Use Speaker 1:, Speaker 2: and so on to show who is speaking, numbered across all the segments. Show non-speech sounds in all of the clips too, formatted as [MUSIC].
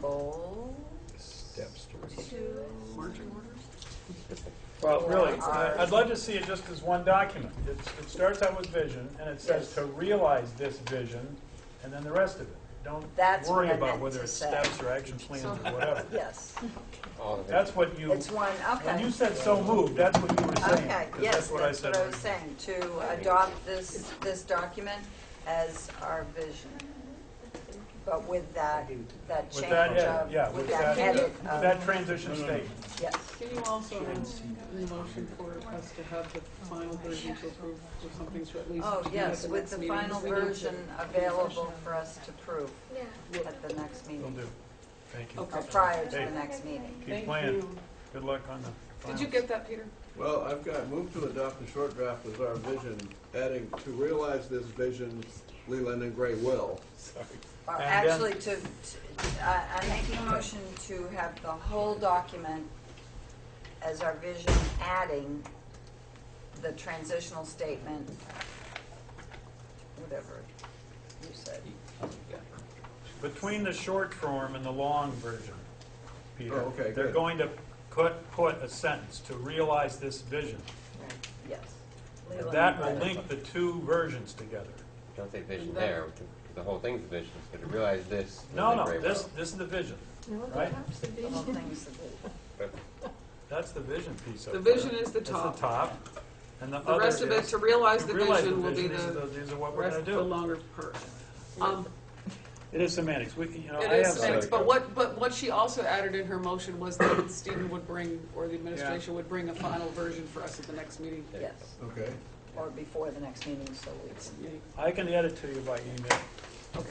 Speaker 1: goal
Speaker 2: Steps towards.
Speaker 1: to.
Speaker 3: Well, really,
Speaker 1: Or
Speaker 3: I- I'd
Speaker 1: ours.
Speaker 3: love to see it just as one document. It's, it starts out with vision, and it says
Speaker 1: Yes.
Speaker 3: to realize this vision, and then the rest of it. Don't
Speaker 1: That's
Speaker 3: worry
Speaker 1: what I
Speaker 3: about
Speaker 1: meant
Speaker 3: whether
Speaker 1: to
Speaker 3: it's
Speaker 1: say.
Speaker 3: steps or action plans or
Speaker 1: [LAUGHS]
Speaker 3: whatever.
Speaker 1: Yes,
Speaker 2: All of
Speaker 3: That's what you,
Speaker 1: it's one,
Speaker 3: when you
Speaker 1: okay.
Speaker 3: said so moved, that's what you were saying.
Speaker 1: Okay,
Speaker 3: 'cause
Speaker 1: yes,
Speaker 3: what I
Speaker 1: that's
Speaker 3: said
Speaker 1: what I
Speaker 3: was-
Speaker 1: was saying, to adopt this, this document as our vision. But with that, that
Speaker 3: With
Speaker 1: change
Speaker 3: that, head, yeah,
Speaker 1: of,
Speaker 3: with
Speaker 1: that
Speaker 3: that,
Speaker 1: edit
Speaker 3: with that
Speaker 1: of,
Speaker 3: transition statement.
Speaker 1: yes.
Speaker 4: Can you also have a motion for us to have the final version to approve or something to at least?
Speaker 1: Oh,
Speaker 4: be at
Speaker 1: yes,
Speaker 4: the
Speaker 1: with
Speaker 4: next
Speaker 1: the
Speaker 4: meeting?
Speaker 1: final version available for us to prove
Speaker 5: Yeah.
Speaker 1: at the next
Speaker 3: Will
Speaker 1: meeting,
Speaker 3: do. Thank you.
Speaker 1: or
Speaker 4: Okay.
Speaker 1: prior to
Speaker 3: Hey.
Speaker 1: the next meeting.
Speaker 3: Keep
Speaker 4: Thank
Speaker 3: playing.
Speaker 4: you.
Speaker 3: Good luck on the
Speaker 4: Did
Speaker 3: finals.
Speaker 4: you get that, Peter?
Speaker 6: Well, I've got, move to adopt the short draft as our vision, adding, to realize this vision, Leland and Gray will.
Speaker 1: Or
Speaker 3: And uh, then-
Speaker 1: Actually, to, to- I- I'm making a motion to have the whole document as our vision, adding the transitional statement, whatever you said.
Speaker 3: Between the short form and the long version, Peter.
Speaker 6: Oh, okay,
Speaker 3: They're
Speaker 6: good.
Speaker 3: going to put, put a sentence, to realize this vision.
Speaker 1: Yes.
Speaker 3: And That will link the two versions together.
Speaker 2: Don't say vision there, we can- the whole thing's the vision, it's gonna realize this. and
Speaker 3: No,
Speaker 2: then
Speaker 3: no,
Speaker 2: very
Speaker 3: this,
Speaker 2: well.
Speaker 3: this is the vision, right?
Speaker 1: The whole thing's the vision.
Speaker 3: [LAUGHS]
Speaker 2: But
Speaker 3: That's the vision piece of
Speaker 4: The
Speaker 3: it.
Speaker 4: vision is the
Speaker 3: That's
Speaker 4: top.
Speaker 3: the top, and the
Speaker 4: The
Speaker 3: other is.
Speaker 4: rest of it, to realize the vision will be
Speaker 3: These are
Speaker 4: the
Speaker 3: These are what we're
Speaker 4: rest
Speaker 3: gonna
Speaker 4: of the
Speaker 3: do.
Speaker 4: longer part. Um,
Speaker 3: It is semantics, we, can- you know, I
Speaker 4: It
Speaker 3: have.
Speaker 4: is
Speaker 3: some-
Speaker 4: semantics, but what, but what she also added in her motion was that Stephen would bring, or the administration would bring a final version for us at the next meeting.
Speaker 1: Yes,
Speaker 6: Okay.
Speaker 1: or before the next meeting, so we can.
Speaker 4: Yay.
Speaker 3: I can add it to you by email.
Speaker 4: Okay.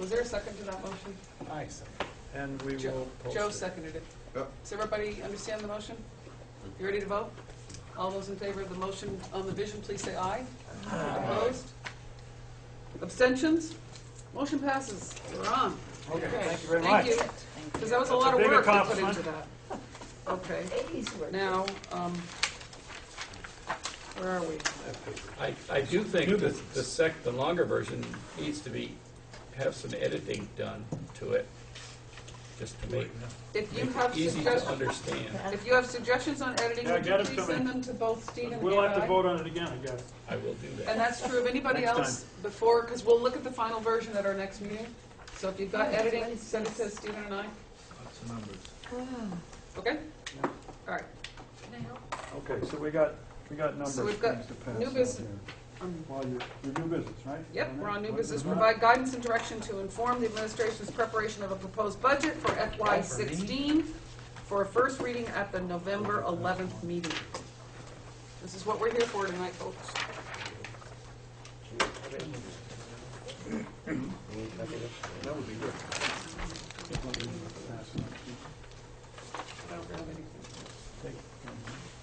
Speaker 4: Was there a second to that motion?
Speaker 3: And we will
Speaker 4: Joe,
Speaker 3: post
Speaker 4: Joe
Speaker 3: it.
Speaker 4: seconded it.
Speaker 6: Yep.
Speaker 4: Does everybody understand the motion? You ready to vote? All those in favor of the motion on the vision, please say aye. Opposed? Abstentions? Motion passes. We're on.
Speaker 3: Okay,
Speaker 4: Okay.
Speaker 3: thank you very much.
Speaker 4: Thank you, because that was
Speaker 3: That's
Speaker 4: a
Speaker 3: a
Speaker 4: lot of
Speaker 3: big
Speaker 4: work to put
Speaker 3: accomplishment.
Speaker 4: into that. Okay,
Speaker 1: Eighties were.
Speaker 4: now, um, where are we?
Speaker 7: I, I do think that the sec, the longer version needs to be, have some editing done to it, just to make
Speaker 4: If you
Speaker 7: make
Speaker 4: have
Speaker 7: it easy to
Speaker 4: suggestions,
Speaker 7: understand.
Speaker 4: if you have suggestions on editing,
Speaker 3: Yeah,
Speaker 4: would you
Speaker 3: get 'em to
Speaker 4: please
Speaker 3: me.
Speaker 4: send them to both Stephen and I?
Speaker 3: We'll have to vote on it again, I guess.
Speaker 7: I will do
Speaker 4: And
Speaker 7: that.
Speaker 4: that's true of anybody
Speaker 3: Next
Speaker 4: else before, because we'll look at the final version at our next meeting. So if you've got editing, send it to Stephen and I, Ah. okay? All right,
Speaker 3: Okay, so we got, we got numbers.
Speaker 4: so we've got
Speaker 3: things to pass
Speaker 4: new
Speaker 3: out
Speaker 4: business.
Speaker 3: here.
Speaker 4: um,
Speaker 3: Well, you're, you're new business, right?
Speaker 4: Yep,
Speaker 3: Isn't
Speaker 4: we're
Speaker 3: it?
Speaker 4: on new
Speaker 3: What
Speaker 4: business,
Speaker 3: is it?
Speaker 4: provide guidance and direction to inform the administration's preparation of a proposed budget for FY sixteen for a first reading at the November eleventh meeting. This is what we're here for tonight, folks.
Speaker 6: That would be good.
Speaker 4: I don't have anything.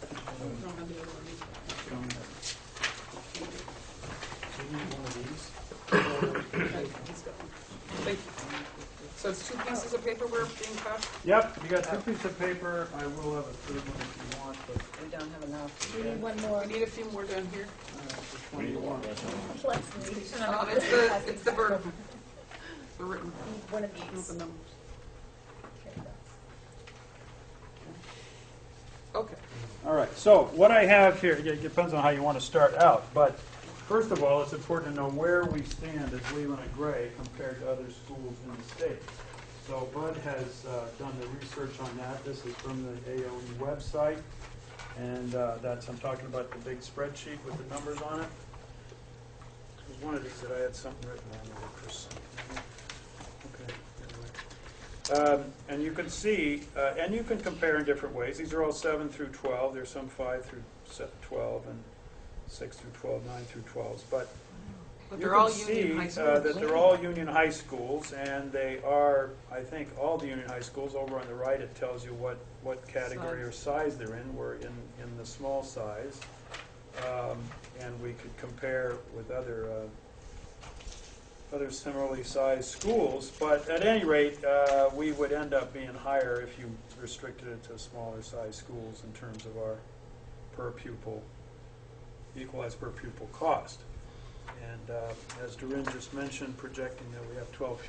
Speaker 4: I don't have the other one. Okay, let's go. Thank you. So it's two pieces of paper we're being passed?
Speaker 3: Yep, you got two pieces of paper, I will have a third one if you want, but
Speaker 1: We don't have enough.
Speaker 5: We need one more.
Speaker 4: We need a few more down here.
Speaker 3: uh, which one do you want?
Speaker 5: Let's need
Speaker 4: Um, it's the, it's the verb. The written,
Speaker 5: one of
Speaker 4: not the
Speaker 5: these.
Speaker 4: numbers. Okay.
Speaker 3: All right, so what I have here, it depends on how you want to start out, but first of all, it's important to know where we stand as Leland and Gray compared to other schools in the state. So Bud has uh, done the research on that, this is from the AOE website, and uh, that's, I'm talking about the big spreadsheet with the numbers on it. There's one of these that I had something written on there, Chris. Okay. anyway. Um, And you can see, uh, and you can compare in different ways. These are all seven through 12. There's some five through se- 12 and six through 12, nine through 12s. But
Speaker 4: But
Speaker 3: you
Speaker 4: they're
Speaker 3: can
Speaker 4: all union high
Speaker 3: see uh,
Speaker 4: schools.
Speaker 3: that they're all union high schools and they are, I think, all the union high schools. Over on the right, it tells you what, what category or size they're in. We're in, in the small size. Um, And we could compare with other uh, other similarly sized schools, but at any rate, uh, we would end up being higher if you restricted it to smaller sized schools in terms of our per pupil, equalized per pupil cost. And uh, as Doreen just mentioned, projecting that we have 12 pupils